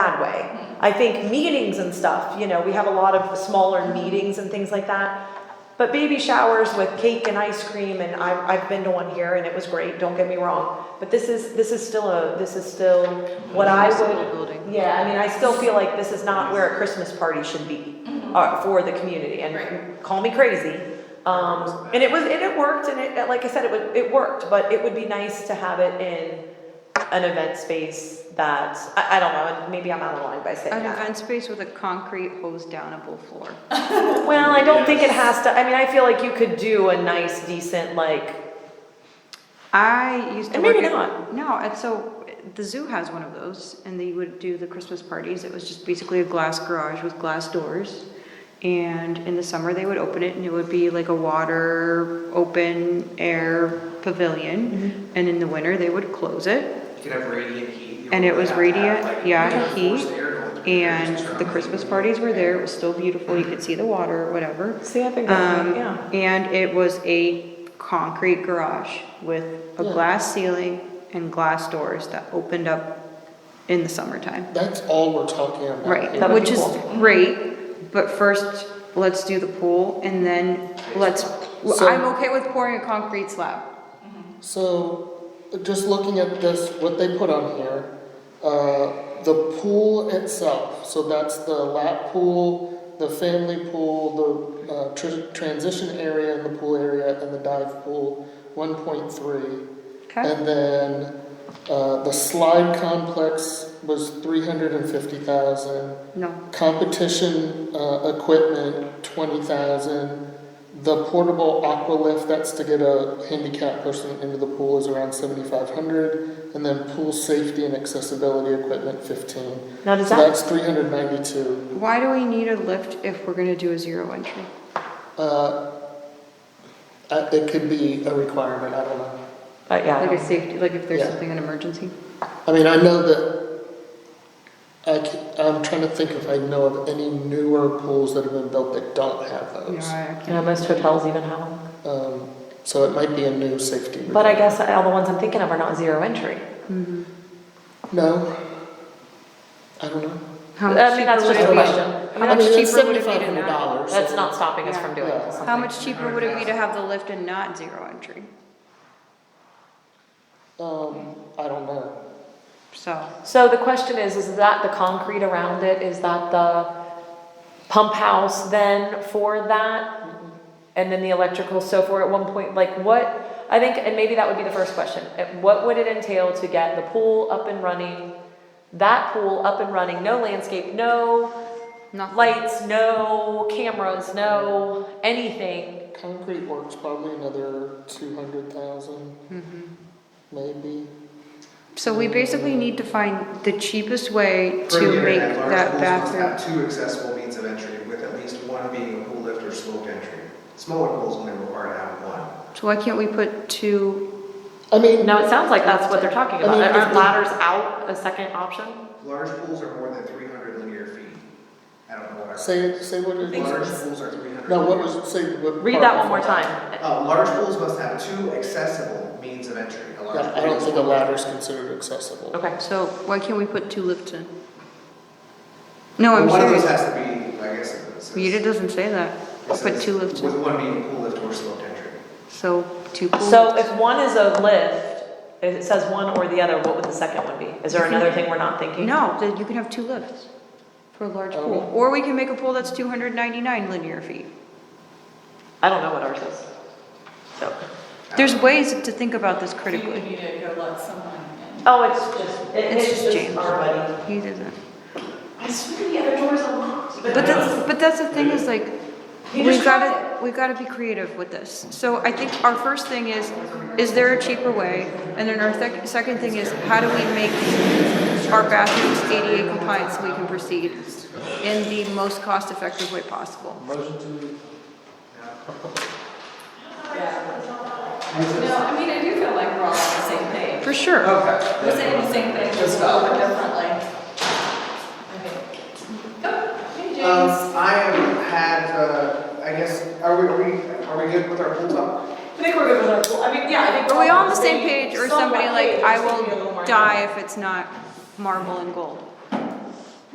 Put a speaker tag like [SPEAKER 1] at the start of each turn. [SPEAKER 1] way. I think meetings and stuff, you know, we have a lot of smaller meetings and things like that. But baby showers with cake and ice cream, and I, I've been to one here and it was great, don't get me wrong. But this is, this is still a, this is still what I would,
[SPEAKER 2] Building.
[SPEAKER 1] yeah, I mean, I still feel like this is not where a Christmas party should be uh, for the community, and
[SPEAKER 2] Right.
[SPEAKER 1] call me crazy. Um, and it was, and it worked, and it, like I said, it would, it worked, but it would be nice to have it in an event space that, I, I don't know, and maybe I'm out of line by saying
[SPEAKER 2] An
[SPEAKER 1] that.
[SPEAKER 2] event space with a concrete hose downable floor.
[SPEAKER 1] Well, I don't think it has to, I mean, I feel like you could do a nice, decent, like,
[SPEAKER 2] I used to
[SPEAKER 1] And
[SPEAKER 2] work
[SPEAKER 1] maybe
[SPEAKER 2] at-
[SPEAKER 1] not.
[SPEAKER 2] No, and so the zoo has one of those, and they would do the Christmas parties. It was just basically a glass garage with glass doors. And in the summer, they would open it, and it would be like a water, open air pavilion. And in the winter, they would close it.
[SPEAKER 3] You could have radiant heat.
[SPEAKER 2] And it was radiant, yeah, heat, And the Christmas parties were there. It was still beautiful. You could see the water, whatever.
[SPEAKER 1] see, I think that's,
[SPEAKER 2] Um,
[SPEAKER 1] right, yeah.
[SPEAKER 2] and it was a concrete garage with a glass ceiling and glass doors that opened up in the summertime.
[SPEAKER 4] That's all we're talking about.
[SPEAKER 2] Right,
[SPEAKER 1] That would
[SPEAKER 2] which
[SPEAKER 1] be
[SPEAKER 2] is
[SPEAKER 1] cool.
[SPEAKER 2] great, but first, let's do the pool and then let's, well,
[SPEAKER 4] So-
[SPEAKER 2] I'm okay with pouring a concrete slab.
[SPEAKER 4] So, just looking at this, what they put on here, uh, the pool itself, so that's the lap pool, the family pool, the, uh, tr- transition area and the pool area and the dive pool, one point three.
[SPEAKER 2] Okay,
[SPEAKER 4] And then, uh, the slide complex was three hundred and fifty thousand.
[SPEAKER 2] no,
[SPEAKER 4] Competition, uh, equipment, twenty thousand. The portable aqua lift, that's to get a handicapped person into the pool is around seventy-five hundred. And then pool safety and accessibility equipment, fifteen.
[SPEAKER 1] Now, does
[SPEAKER 4] So
[SPEAKER 1] that,
[SPEAKER 4] that's three hundred ninety-two.
[SPEAKER 2] why do we need a lift if we're gonna do a zero entry?
[SPEAKER 4] Uh, uh, it could be a requirement, I don't know.
[SPEAKER 1] uh, yeah. I
[SPEAKER 2] Like
[SPEAKER 1] don't-
[SPEAKER 2] a safety, like if there's
[SPEAKER 4] Yeah.
[SPEAKER 2] something, an emergency?
[SPEAKER 4] I mean, I know that, I ca- I'm trying to think if I know of any newer pools that have been built that don't have
[SPEAKER 2] You know,
[SPEAKER 4] those.
[SPEAKER 2] I can't-
[SPEAKER 1] You know, most hotels even have them.
[SPEAKER 4] Um, so it might be a new safety.
[SPEAKER 1] But I
[SPEAKER 4] requirement.
[SPEAKER 1] guess all the ones I'm thinking of are not zero entry.
[SPEAKER 4] No. I don't know.
[SPEAKER 2] How
[SPEAKER 1] I
[SPEAKER 2] much
[SPEAKER 1] mean,
[SPEAKER 2] cheaper
[SPEAKER 1] that's
[SPEAKER 2] would
[SPEAKER 1] just
[SPEAKER 2] it
[SPEAKER 1] a
[SPEAKER 2] be?
[SPEAKER 1] question.
[SPEAKER 2] How much cheaper would it be to not?
[SPEAKER 4] dollars.
[SPEAKER 1] That's not stopping us
[SPEAKER 2] Yeah.
[SPEAKER 1] from doing
[SPEAKER 4] Yeah.
[SPEAKER 1] something.
[SPEAKER 2] How much cheaper would it be to have the lift and not zero entry?
[SPEAKER 4] Um, I don't know.
[SPEAKER 2] So,
[SPEAKER 1] So the question is, is that the concrete around it? Is that the pump house then for that? And then the electrical, so for at one point, like what, I think, and maybe that would be the first question. Uh, What would it entail to get the pool up and running? That pool up and running, no landscape, no
[SPEAKER 2] nothing.
[SPEAKER 1] lights, no cameras, no anything.
[SPEAKER 4] Concrete works probably another two hundred thousand,
[SPEAKER 1] Mm-hmm.
[SPEAKER 4] maybe.
[SPEAKER 2] So we basically need to find the cheapest way to make that bathroom.
[SPEAKER 3] Two accessible means of entry with at least one being a pool lift or sloped entry. Smaller pools only require to have one.
[SPEAKER 2] So why can't we put two,
[SPEAKER 4] I mean,
[SPEAKER 1] No, it sounds like that's what they're talking
[SPEAKER 4] I
[SPEAKER 1] about.
[SPEAKER 4] mean,
[SPEAKER 1] Aren't
[SPEAKER 4] if-
[SPEAKER 1] ladders out a second option?
[SPEAKER 3] Large pools are more than three hundred linear feet. I don't know what I.
[SPEAKER 4] say, say what it
[SPEAKER 3] Large
[SPEAKER 4] was.
[SPEAKER 3] pools are three hundred.
[SPEAKER 4] No, what was, say what.
[SPEAKER 1] Read
[SPEAKER 4] part
[SPEAKER 1] that
[SPEAKER 4] was
[SPEAKER 1] one more
[SPEAKER 4] it?
[SPEAKER 1] time.
[SPEAKER 3] Uh, large pools must have two accessible means of entry. A large
[SPEAKER 4] Yeah, I
[SPEAKER 3] pool
[SPEAKER 4] don't
[SPEAKER 3] is
[SPEAKER 4] think a
[SPEAKER 3] one.
[SPEAKER 4] ladder's considered accessible.
[SPEAKER 1] Okay.
[SPEAKER 2] so why can't we put two lifts in? No,
[SPEAKER 3] Well,
[SPEAKER 2] I'm
[SPEAKER 3] One of those
[SPEAKER 2] serious.
[SPEAKER 3] has to be, I guess. it says-
[SPEAKER 2] Rita doesn't say that.
[SPEAKER 3] it
[SPEAKER 2] Put
[SPEAKER 3] says
[SPEAKER 2] two lifts
[SPEAKER 3] With
[SPEAKER 2] in.
[SPEAKER 3] one being pool lift or sloped entry.
[SPEAKER 2] So two pool
[SPEAKER 1] So
[SPEAKER 2] lifts.
[SPEAKER 1] if one is a lift, if it says one or the other, what would the second one be? Is there another thing we're not thinking?
[SPEAKER 2] No, then you can have two lifts for a large
[SPEAKER 4] Oh.
[SPEAKER 2] pool. Or we can make a pool that's two hundred ninety-nine linear feet.
[SPEAKER 1] I don't know what ours is. So,
[SPEAKER 2] There's ways to think about this
[SPEAKER 5] So you
[SPEAKER 2] critically.
[SPEAKER 5] need to go let someone
[SPEAKER 1] oh, it's just, it-
[SPEAKER 2] It's
[SPEAKER 1] it's
[SPEAKER 2] just
[SPEAKER 1] just
[SPEAKER 2] James.
[SPEAKER 1] our buddy.
[SPEAKER 2] He doesn't.
[SPEAKER 1] I swear the other door's unlocked.
[SPEAKER 2] But that's, but that's the thing is like,
[SPEAKER 1] You
[SPEAKER 2] we've
[SPEAKER 1] just cracked
[SPEAKER 2] gotta, we've gotta be creative with this. So I think our first thing is, is there a cheaper way? And then our sec- second thing is, how do we make our bathrooms ADA compliant so we can proceed in the most cost-effective way possible?
[SPEAKER 5] in. No, I mean, I do feel like we're all on the same page.
[SPEAKER 2] For sure.
[SPEAKER 3] Okay.
[SPEAKER 5] We're saying the same thing, just a little bit differently. Okay. Go, hey
[SPEAKER 3] Um,
[SPEAKER 5] James.
[SPEAKER 3] I have had, uh, I guess, are we, are we, are we good with our pool talk?
[SPEAKER 1] I think we're good with our pool. I mean, yeah, I think.
[SPEAKER 2] Are we all on the same page or
[SPEAKER 1] somewhat
[SPEAKER 2] somebody like,
[SPEAKER 1] page,
[SPEAKER 2] I
[SPEAKER 1] just maybe a little more
[SPEAKER 2] will die if it's not marble and gold?